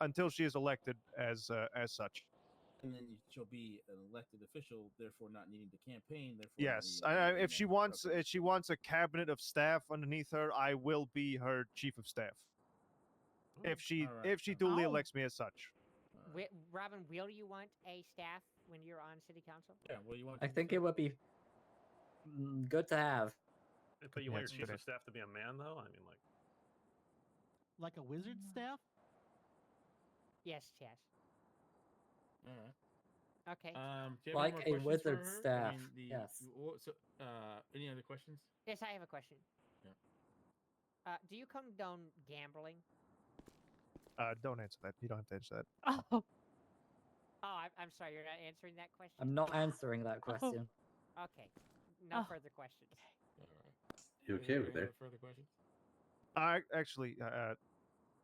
until she is elected as uh, as such. and then she'll be an elected official, therefore not needing to campaign. Therefore, Yes, not I, needing I, to if she campaign. wants Okay. if she wants a cabinet of staff underneath her, I will be her chief of staff. If she Mm, Alright, if she alright. duly Oh. elects me as such, Alright. Wi- Robin, will you want a staff when you're on city council? yeah, what do you want? I think it would be mm, good to have. But you Yeah, want your it's chief good. of staff to be a man, though. I mean, like, Like a wizard staff? Yes, yes. Alright. Okay. Uh, Um, do you have any Like more a questions for wizard her? I staff, mean, the- yes. you- what- So, uh, any other questions? yes, I have a question. Yeah. Uh, do you condone gambling? uh, don't answer that. You don't have to answer that. Oh, oh, Oh, I- I'm sorry, you're not answering that question. I'm not answering that question. Okay. No Oh. further questions. Alright. You Any okay other- over any there? other Further questions? I actually, uh,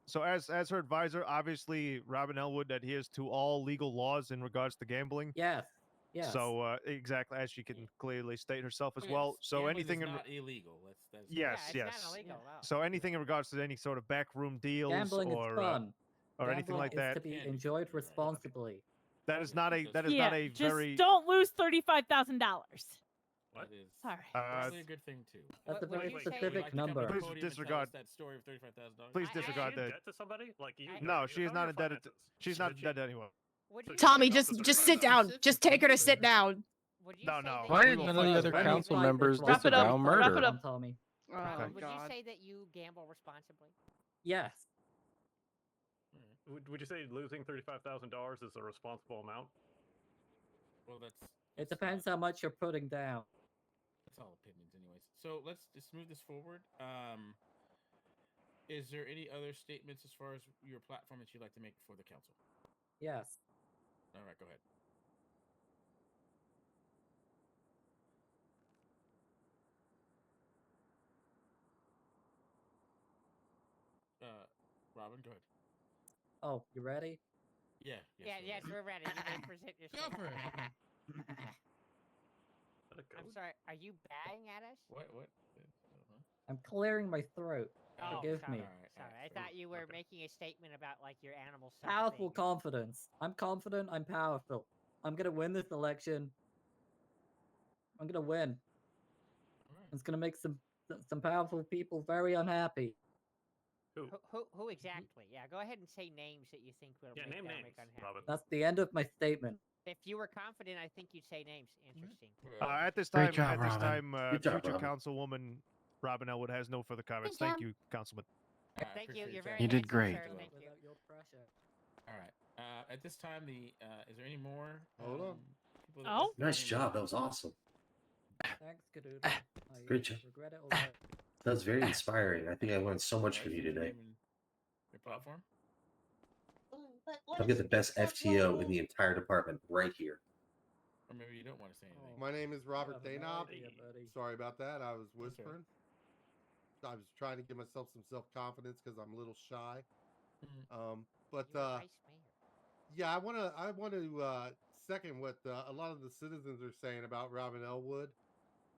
so as as her advisor, obviously Robin Elwood adheres to all legal laws in regards to gambling. Yes. Yes. So uh, exactly as she can clearly state herself as Okay, well. it's- So gambling is anything in not illegal. That's, that's Yes, yeah, it's yes. Not illegal, though. so anything in regards to any sort of backroom deals gambling is or uh, fun. or anything Gambling like is that. to be Yeah, enjoyed you're right. responsibly. That is not a that is yeah, not a just very don't lose thirty-five thousand dollars. What? That is Sorry. uh, probably a good thing too. That's What- a what very you say- Would you specific like to come to the number. Please podium and tell us disregard- that story of thirty-five thousand dollars. Please I- I- disregard I- that. debt to somebody? Like, you, I- you No, know she is your not in debt at- finances. She's not Did she- dead anyway. Would So you Tommy, Tommy, say- just Officer just Brown. sit down. Just take her to sit down. Would you No, no. say that Why you did none of the gamble other responsibly? Friendly council fight members is Wrap it up, disavow welcome. wrap it murder? up. Tommy. Oh Okay. my Would you god. say that you gamble responsibly? Yes. Would, would you say losing thirty-five thousand dollars is a responsible amount? Well, that's It depends how much you're putting down. that's all opinions, anyways. So let's just move this forward. Um, is there any other statements as far as your platform that you'd like to make before the council? Yes. All right, go ahead. Uh, Robin, go ahead. Oh, you ready? Yeah. yeah, go yes, ahead. we're ready. You may present yourself. Let it go. I'm sorry. Are you bowing at us? What? What? I don't know. I'm clearing my throat. Oh, Forgive sorry. me. Alright, Sorry, I alright, thought sorry. you were Okay. making a statement about like your animal. self Powerful thing. confidence. I'm confident. I'm powerful. I'm gonna win this election. I'm gonna All win. right. It's gonna make some some powerful people very unhappy. Who, who, Mm-hmm. who exactly? Yeah, go ahead and say names that you think will Yeah, make name they'll names, make unhappy. Robin. That's the end of my statement. If you were confident, I think you'd say names. Mm-hmm. Interesting. Uh, at this time, Great job, at this Robin. time, uh, Good job, future Robin. councilwoman Robin Elwood has no further comments. job. Thank you, councilman. All right, Thank you, appreciate your you're very time. You did great. Sure, thank you. Without your pressure. All right. Uh, at this time, the uh, is there any more? Hold on. um, people that Oh. listen to Nice any- job. That was awesome. Thanks, Kadoodle. I Great job. regret Ah, it Ah. already. That was very inspiring. I think I learned so much Nice from you and today. human- Your platform. I'll get the best FTO in the entire department right here. Or maybe you don't want to say anything. Oh, My name is Robert I have no Danob. idea, buddy. Sorry about that. I was whispering. I was trying to give myself some self confidence because I'm a little shy. Mhm. Mm. Um, You but were uh, vice mayor. yeah, I want to I want to uh, second what uh, a lot of the citizens are saying about Robin Elwood.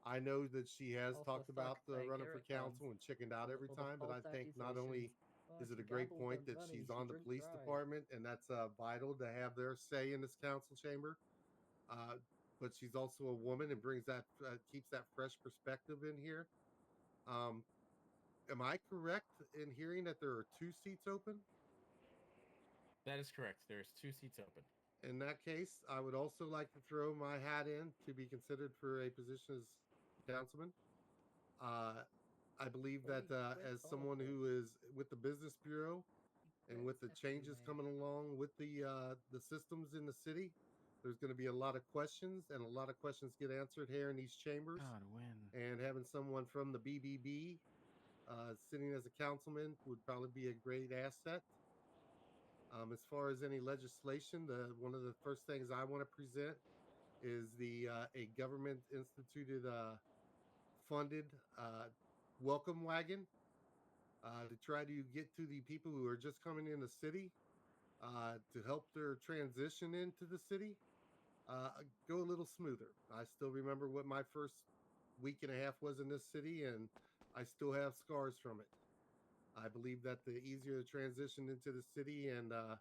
I know that she has Also talked suck about uh, that running for Garrett council and Guns chickened out every All the time, but I false think not only accusations. Oh, is it she a great gambled point and that money, she's she on the drink police drive. department and that's uh, vital to have their say in this council chamber uh, but she's also a woman and brings that uh, keeps that fresh perspective in here um, am i correct in hearing that there are two seats open That is correct. There's two seats open. in that case i would also like to throw my hat in to be considered for a position as councilman uh, i believe Holy that uh, crap, as all of someone them. who is with the business bureau and Great with the stuff you changes made. coming along with the uh, the systems in the city, there's going to be a lot of questions, and a lot of questions get answered here in these chambers. God, win. And having someone from the BBB uh, sitting as a councilman would probably be a great asset. Um, as far as any legislation, the one of the first things I want to present is the uh, a government instituted uh, funded uh, welcome wagon uh, to try to get to the people who are just coming in the city uh, to help their transition into the city uh, go a little smoother. I still remember what my first week and a half was in this city, and I still have scars from it. I believe that the easier the transition into the city and uh,